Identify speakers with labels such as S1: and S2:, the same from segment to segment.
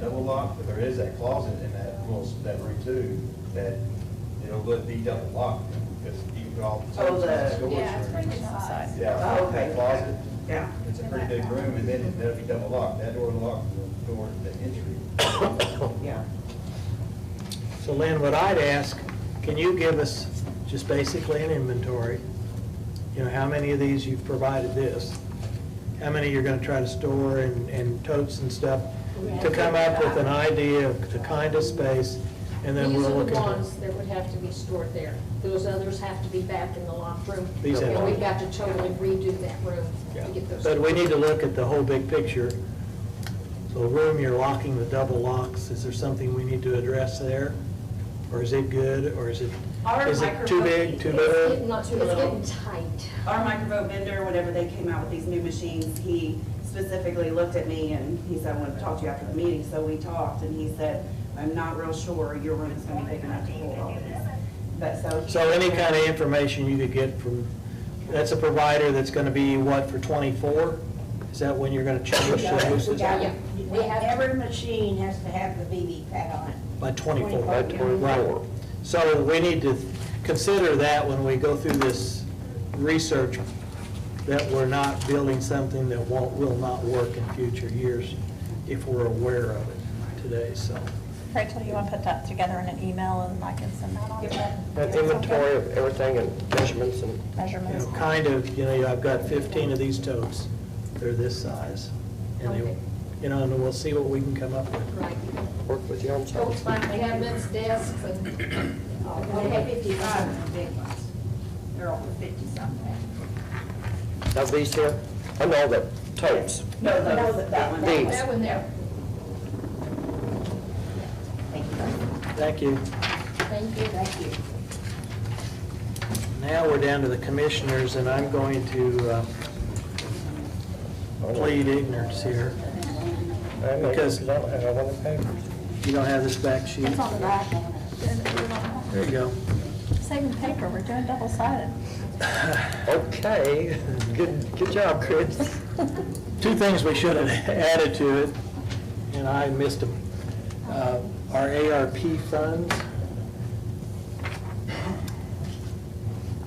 S1: double locked, but there is that closet in that little, that room too, that it'll let be double locked, because you can all.
S2: Oh, the-
S3: Yeah, it's pretty
S1: Yeah,
S3: good size.
S2: Oh, okay.
S1: that closet,
S2: Yeah.
S1: it's a pretty big room, and then that'll be double locked, that door locked, the door to the entry.
S2: Yeah.
S4: So Lynn, what I'd ask, can you give us just basically an inventory? You know, how many of these you've provided this? How many you're gonna try to store and, and totes and stuff? To come up with an idea of the kind of space, and then we'll look
S3: These are the
S4: into.
S3: ones that would have to be stored there. Those others have to be back in the locked room.
S4: These have-
S3: And we've got to totally redo that room to get those.
S4: But we need to look at the whole big picture. So room you're locking, the double locks, is there something we need to address there? Or is it good, or is it,
S5: Our
S4: is it too big, too
S3: It's
S4: little?
S3: getting-
S5: Not too
S3: It's
S5: little.
S3: getting tight.
S5: Our microvote vendor, whenever they came out with these new machines, he specifically looked at me and he said, I want to talk to you after the meeting. So we talked and he said, I'm not real sure your room is going to be big enough to hold all these. But so.
S4: So any kind of information you could get from, that's a provider that's going to be, what, for 24? Is that when you're going to change services?
S3: Yeah. We have-
S6: Every machine has to have the VV pad on it.
S4: By 24?
S6: 24, By yeah. 24.
S4: Right. So we need to consider that when we go through this research, that we're not building something that won't, will not work in future years if we're aware of it today, so.
S7: Rachel, you want to put that together in an email and I can send that on to
S8: An inventory of everything and measurements and,
S4: You
S7: measurements?
S4: know, kind of, you know, I've got 15 of these totes, they're this size. And they,
S3: Okay.
S4: you know, and we'll see what we can come up with.
S3: Right.
S8: work with you on
S3: Totes,
S8: something.
S3: my cabinets, desks, and, uh,
S6: We have fifty-five in the big ones. They're over fifty something.
S8: Now these here, I know the totes.
S5: No, those- that one.
S8: These.
S3: that one there.
S4: Thank you.
S3: Thank you. Thank you.
S4: Now we're down to the commissioners, and I'm going to uh, plead ignorance here.
S8: Oh, I know,
S4: Because-
S8: I don't have all the papers.
S4: You don't have this back sheet?
S7: It's on the back.
S4: There you go.
S7: Saving paper, we're doing double-sided.
S8: Okay, good, good job, Chris.
S4: Two things we should have added to it, and I missed them. Uh, Our ARP funds,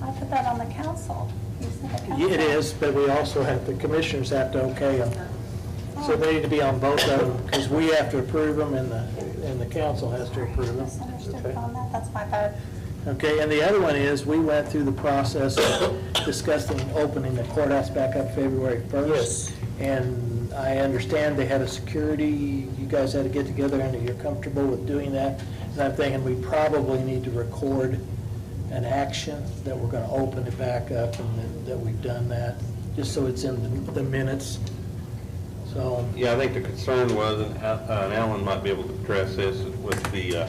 S7: I put that on the council. You said the council.
S4: it is, but we also have, the commissioners have to okay them. So they need to be on both of them, because we have to approve them, and the, and the council has to approve them.
S7: Misunderstood on that, that's my bad.
S4: Okay, and the other one is, we went through the process of discussing opening the courthouse back up February 1st.
S8: Yes.
S4: And I understand they had a security, you guys had to get together, and you're comfortable with doing that. And I'm thinking we probably need to record an action that we're going to open it back up and that- that we've done that, just so it's in the- the minutes. So,
S9: Yeah, I think the concern was, and Al- uh, and Alan might be able to address this, with the uh,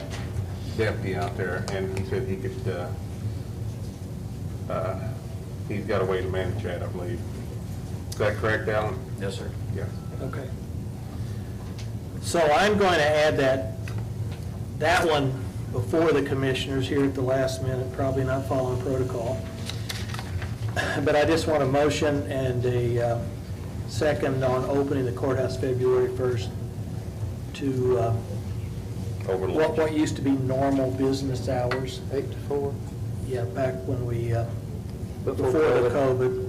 S9: deputy out there, and he said he could, uh, uh, he's got a way to manage that, I believe. Is that correct, Alan?
S1: Yes, sir.
S9: Yeah.
S4: Okay. So I'm going to add that, that one before the commissioners here at the last minute, probably not following protocol. But I just want a motion and a uh, second on opening the courthouse February 1st to uh, what,
S9: Overlook.
S4: what used to be normal business hours.
S8: Eight to four.
S4: Yeah, back when we, uh,
S8: Before
S4: before the
S8: COVID.
S4: COVID.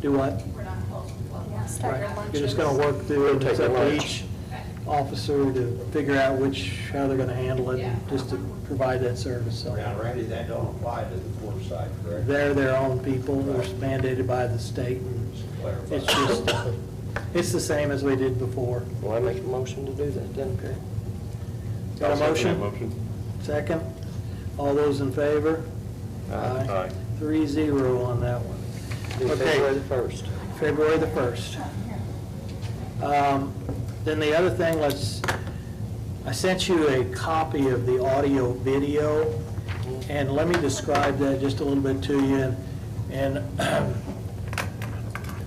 S4: Do what?
S7: Start your
S4: Right, you're
S7: lunches.
S4: just gonna work through it,
S8: Take
S4: it's
S8: your
S4: up to
S8: lunch.
S4: each officer to figure out which, how they're gonna handle it, and just to provide that service, so.
S1: Now, Randy, that don't apply to the court side, correct?
S4: They're their own people, they're mandated by the state, and it's just, it's the same as we did before.
S8: Well, I make a motion to do that then.
S4: Okay. Got a motion?
S9: Motion.
S4: Second? All those in favor?
S9: Aye.
S4: Three zero on that one.
S8: Do
S4: Okay.
S8: February the first.
S4: February the 1st. Um, Then the other thing, let's, I sent you a copy of the audio video, and let me describe that just a little bit to you. And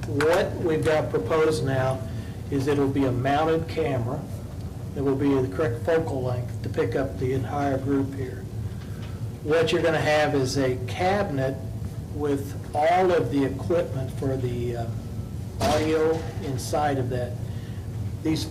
S4: what we've got proposed now is it'll be a mounted camera. It will be the correct focal length to pick up the entire group here what you're going to have is a cabinet with all of the equipment for the uh, audio inside of that. these